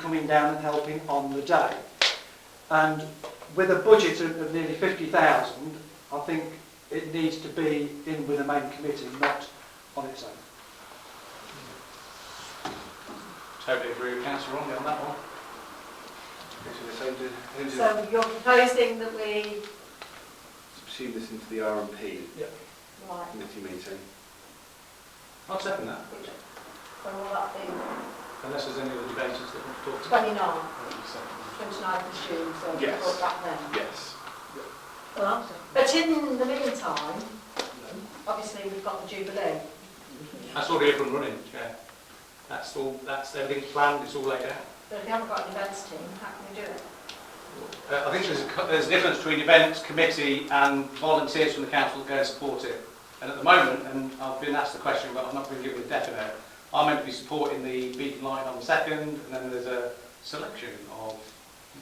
coming down and helping on the day. And with a budget of of nearly 50,000, I think it needs to be in with the main committee, not on its own. Totally agree with councillor Romney on that one. So you're proposing that we, Subsume this into the RMP right, committee meeting. I'll second that, when will that be? unless there's any other debaters that want to talk to. 29, 29 Second. of June, so we'll Yes. put that then. Yes. Right. But in the meantime, obviously we've got the Jubilee. That's already up and running, Chair. That's all, that's everything planned, it's all laid out. But if we haven't got an events team, how can we do it? Uh, I think there's a, co- there's a difference between events committee and volunteers from the council that go and support it. And at the moment, and I've been asked the question, but I'm not been given a definite, I'm meant to be supporting the beacon light on the second, and then there's a selection of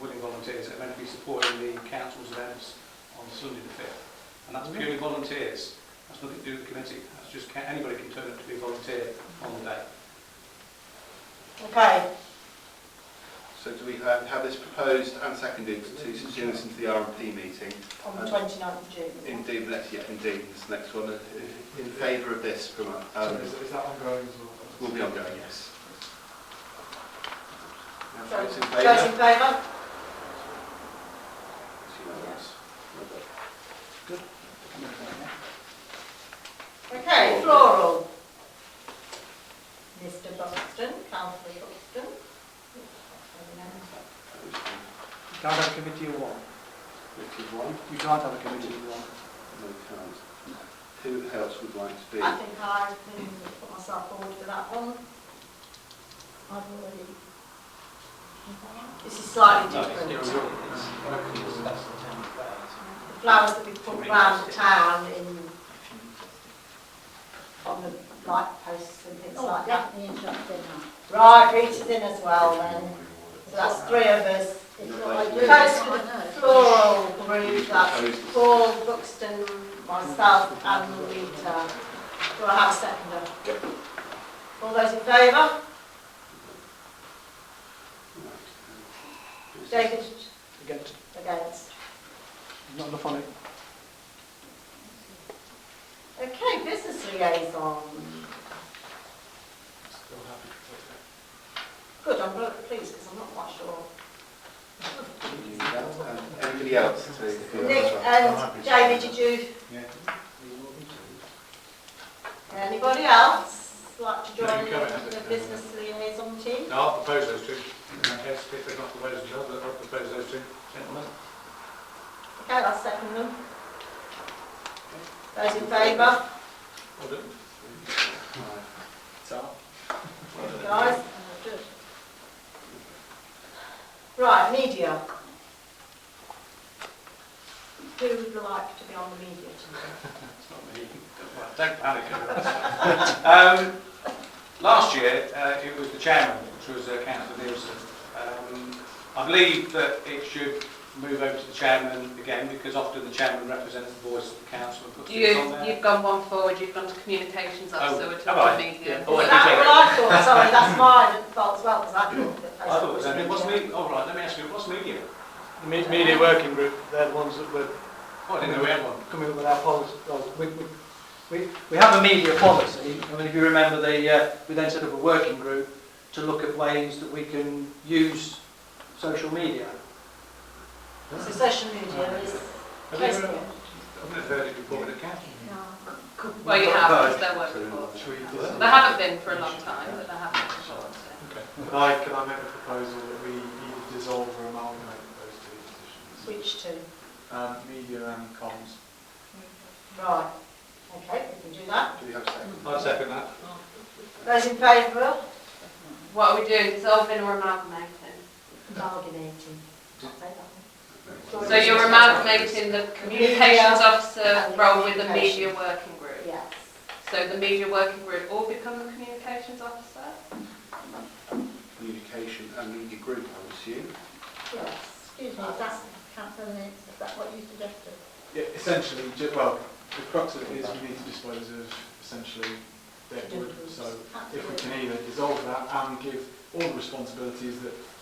willing volunteers that are meant to be supporting the council's events on Sunday the fifth. And that's purely volunteers, that's nothing to do with the committee, that's just, ca- anybody can turn up to be a volunteer on the day. Okay, So do we have, have this proposed and seconded to subsume this into the RMP meeting? on Um, the 29th of June. Indeed, let's, yeah, indeed, this next one, uh, in favour of this from, um, Is that ongoing as well? will be ongoing, yes. Now, So, Those in Those favour? in favour? It's unanimous. Okay, floral. Mr Buxton, councillor Buxton. Those You can't have a committee of one. in- which is one? You can't have a committee of one. No, can't. Who else would like to be? I think I can put myself forward for that one. I've already. This is slightly different. The flowers that we put round the town in, on the light posts and things like that. Right, Rita's in as well then. So that's three of us. Post for the floral group, that's Paul, Buxton, myself and Rita. Do I have a seconder? All those in favour? David, Against, against? not enough on it. Okay, business liaison. Good, I'm really pleased because I'm not quite sure. Um, Anybody else to? Nick uh, and Jamie, did you? Anybody else like to No, join you can't have the it. business liaison team? No, I'll propose those two. In that case, if they're not proposed, I'll I'll propose those two. Gentlemen? Okay, I'll second them. Those in favour, Well done. guys? Right, media. Who would like to be on the media team? It's not me. Don't panic. Um, Last year, uh, it was the chairman, which was uh, councillor Nielsen. Um, I believe that it should move over to the chairman again, because often the chairman represents the voice of the council and puts things on You, there. you've gone one forward, you've gone to communications officer, we're Oh, have I? talking media. Oh, I did Is that take it. what I thought? Sorry, that's mine fault as well because I thought that. I thought it was, only- what's media? Oh, right, let me ask you, what's media? The me- media working group, they're the ones that were Oh, I didn't know we had one. coming up with our policy. Well, we, we, we, we have a media policy. I mean, if you remember, the, uh, we then set up a working group to look at ways that we can use social media. So social media is Have you ever- Facebook. I've never heard it before, but it counts. Well, you have, because there were before. They haven't been for a long time, but they have been before. so. Can I, can I make a proposal that we either dissolve or amalgamate those two positions? Which two? Um, media and comms. Right. Okay, we can do that. Do we have a second? I'll second that. Those in favour? What are we doing, dissolving or amalgamating? Amalgamating. So you're amalgamating the communications officer role with the media working group. Yes. So the media working group all become the communications officer? Communication and media group, I would assume. Yes. Excuse me, that's. Yeah, essentially, ju- well, the crux of it is we need to dispose of essentially dead wood. So if we can either dissolve that and give all the responsibilities that